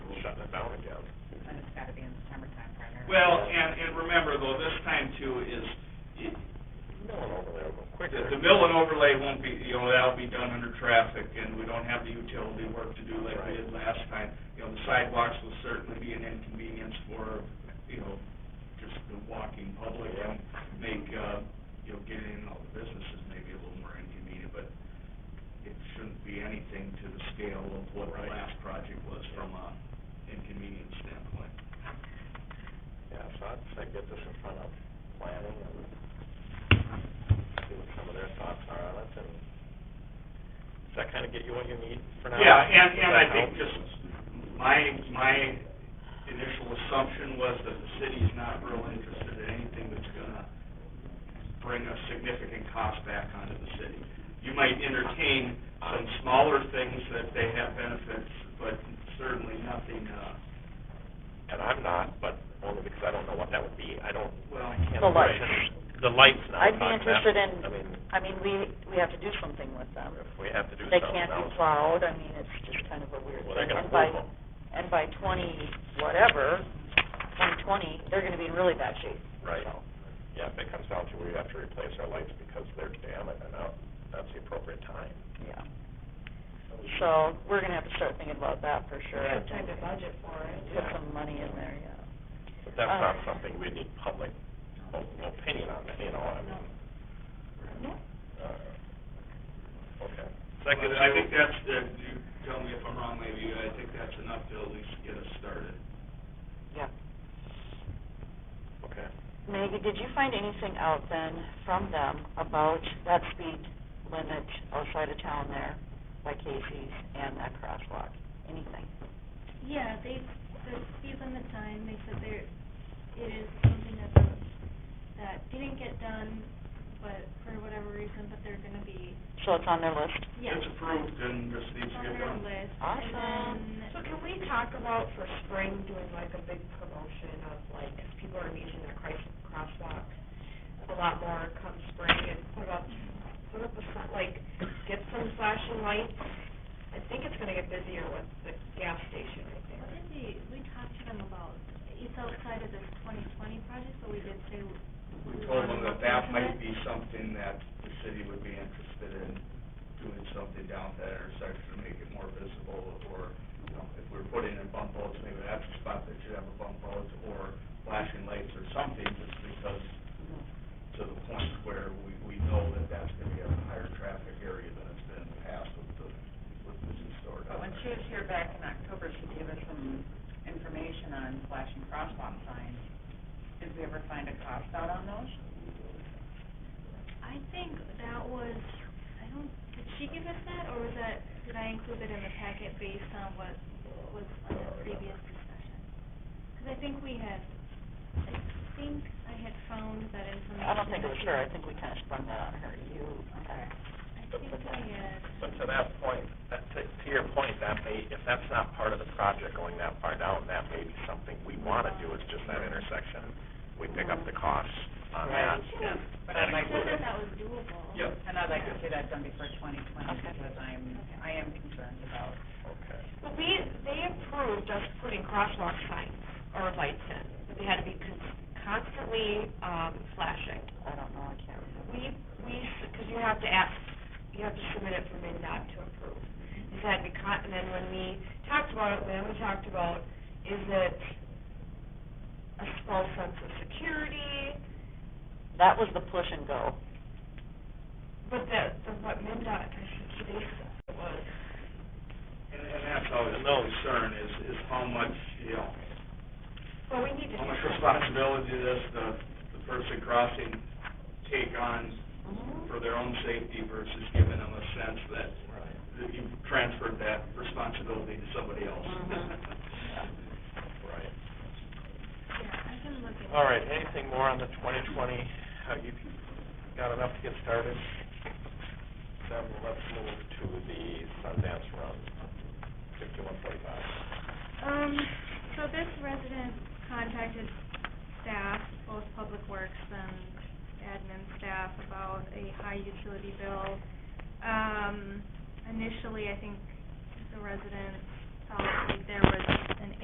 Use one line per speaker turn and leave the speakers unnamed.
September timeframe. or-
Well, and, and remember though, this time too is, it-
Milling overlay will go quicker.
the the mill and overlay won't be, you know, that'll be done under traffic and we don't have the utility work to do like we did last time. You know, the sidewalks will certainly be an inconvenience for, you know, just the walking public and make, uh, you know, getting in and all the businesses maybe a little more inconvenient, but it shouldn't be anything to the scale of what the last project was from a inconvenience standpoint.
Yeah, so I'd say get this in front of planning and see what some of their thoughts are on it, and does that kind of get you what you need for now?
Yeah, and, and
Does
I
that
think
help?
just, my, my initial assumption was that the city's not real interested in anything that's gonna bring a significant cost back onto the city. You might entertain some smaller things that they have benefits, but certainly nothing, uh,
And I'm not, but only because I don't know what that would be, I don't,
well,
can't
The lights.
imagine, the lights now.
I'd be
talking about-
interested in-
I mean,
I mean, we, we have to do something with them.
if we have to do
They
something
can't be
else,
plowed, I mean, it's just kind of a weird
well, they're
thing.
gonna move
And by,
them.
and by twenty whatever, twenty twenty, they're gonna be in really bad shape.
Right.
So,
Yeah, if it comes down to we have to replace our lights because they're damaged, and out, that's the appropriate time.
Yeah. So, we're gonna have to start thinking about that for sure.
We have time to budget for it.
Put some money in there, yeah.
But that's
Uh,
not something we need public o- opinion on, you know, I mean, uh, okay.
I think that's, the- you tell me if I'm wrong, maybe, I think that's enough to at least get us started.
Okay.
Maggie, did you find anything out then from them about that speed limit outside of town there by Casey's and that crosswalk? Anything?
Yeah, they, the speed limit sign, they said there, it is something that, the- that didn't get done, but for whatever reason, but they're gonna be,
So it's on their list?
yeah.
It's approved and just needs
It's
to
on
get
their
done.
list,
Awesome.
and
Um, So
then,
can we talk about for spring doing like a big promotion of like, if people are using their Christ crosswalk a lot more come spring and put up, put up a sign, like, get some flashing lights? I think it's gonna get busier with the gas station right
what
there.
did we, we talked to them about, it's outside of this twenty twenty project, but we did say.
We
we
told them
wanna
that
look
that
into
might
it.
be something that the city would be interested in, doing something down at that intersection, make it more visible, or, you know, if we're putting in bump outs, maybe that's a spot that should have a bump out, or flashing lights or something, just because, to the point where we, we know that that's gonna be a higher traffic area than it's been in the past with the, with the store
But Uh,
down
when she
there.
was here back in October, she gave us some information on flashing crosswalk signs. Did we ever find a cost out on those?
I think that was, I don't, did she give us that, or was that, did I include it in the packet based on what was on the previous discussion? Because I think we had, I think I had found that information.
I don't think it was her, I think we kind of sprung that on her, you.
Okay.
I think I had,
But to that point, that, to, to your point, that may, if that's not part of the project going that far down, that may be something we want to do, is just that intersection. We pick up the costs on that. and
But I'd like
I
to-
thought that that was doable.
Yep,
And I'd like to see that done before twenty twenty,
Okay.
because I'm, I am concerned about.
Okay.
Well, we, they approved us putting crosswalk signs or lights in, but they had to be con- constantly, um, flashing.
I don't know, I can't remember.
We, we, because you have to ask, you have to submit it for MinDOT to approve. It had to be con, and then when we talked about it, then we talked about, is it a false sense of security?
That was the push and go.
But the, the, what MinDOT, I think they said was,
and, and that's always the concern is, is how much, you know,
well, we need to.
how much responsibility does the, the person crossing take on
Mm-hmm.
for their own safety versus giving them a sense that, that you transferred that responsibility to somebody else.
Mm-hmm.
Right.
Yeah, I can look at it.
All right, anything more on the twenty twenty? Have you got enough to get started? Then let's move to the Sundance Run, fifty-one forty-five.
Um, so this resident contacted staff, both Public Works and admin staff, about a high utility bill. Um, initially, I think the resident thought that there was an